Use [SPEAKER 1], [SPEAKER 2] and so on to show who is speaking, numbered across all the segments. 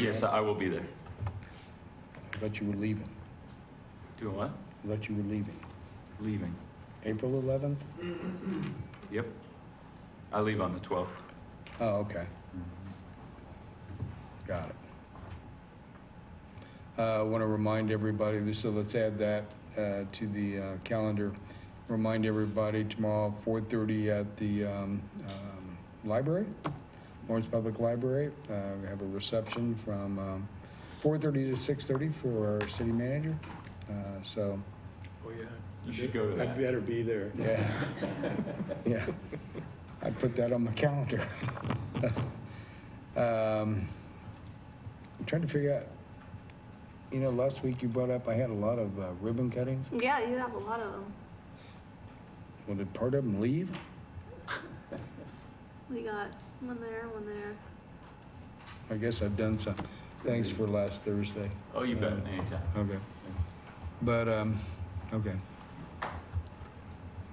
[SPEAKER 1] Yes, I will be there.
[SPEAKER 2] I thought you were leaving.
[SPEAKER 1] Doing what?
[SPEAKER 2] I thought you were leaving.
[SPEAKER 1] Leaving.
[SPEAKER 2] April 11th?
[SPEAKER 1] Yep. I leave on the 12th.
[SPEAKER 2] Oh, okay. Got it. Uh, I want to remind everybody, so let's add that uh, to the uh, calendar. Remind everybody tomorrow, 4:30 at the um, um, library, Lawrence Public Library. Uh, We have a reception from um, 4:30 to 6:30 for our city manager. Uh, So,
[SPEAKER 3] Oh, yeah.
[SPEAKER 1] You should go to
[SPEAKER 3] I'd
[SPEAKER 1] that.
[SPEAKER 3] better be there.
[SPEAKER 2] yeah, yeah. I put that on my calendar. Um, I'm trying to figure out, you know, last week you brought up, I had a lot of uh, ribbon cuttings.
[SPEAKER 4] Yeah, you have a lot of them.
[SPEAKER 2] Well, did part of them leave?
[SPEAKER 4] We got one there, one there.
[SPEAKER 2] I guess I've done some. Thanks for last Thursday.
[SPEAKER 1] Oh, you bet,
[SPEAKER 2] Uh,
[SPEAKER 1] anytime.
[SPEAKER 2] Okay. But, um, okay.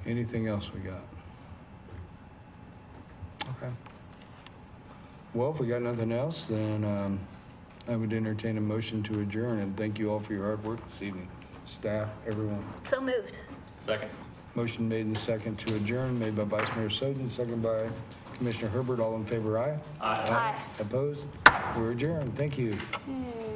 [SPEAKER 2] Anything else we got? Okay. Well, if we got nothing else, then, um, I would entertain a motion to adjourn and thank you all for your hard work this evening. Staff, everyone.
[SPEAKER 4] So moved.
[SPEAKER 1] Second.
[SPEAKER 2] Motion made and second to adjourn, made by Vice Mayor Soden, second by Commissioner Herbert. All in favor, aye?
[SPEAKER 1] Aye.
[SPEAKER 4] Aye.
[SPEAKER 2] Opposed? We're adjourned. Thank you.
[SPEAKER 4] Yay.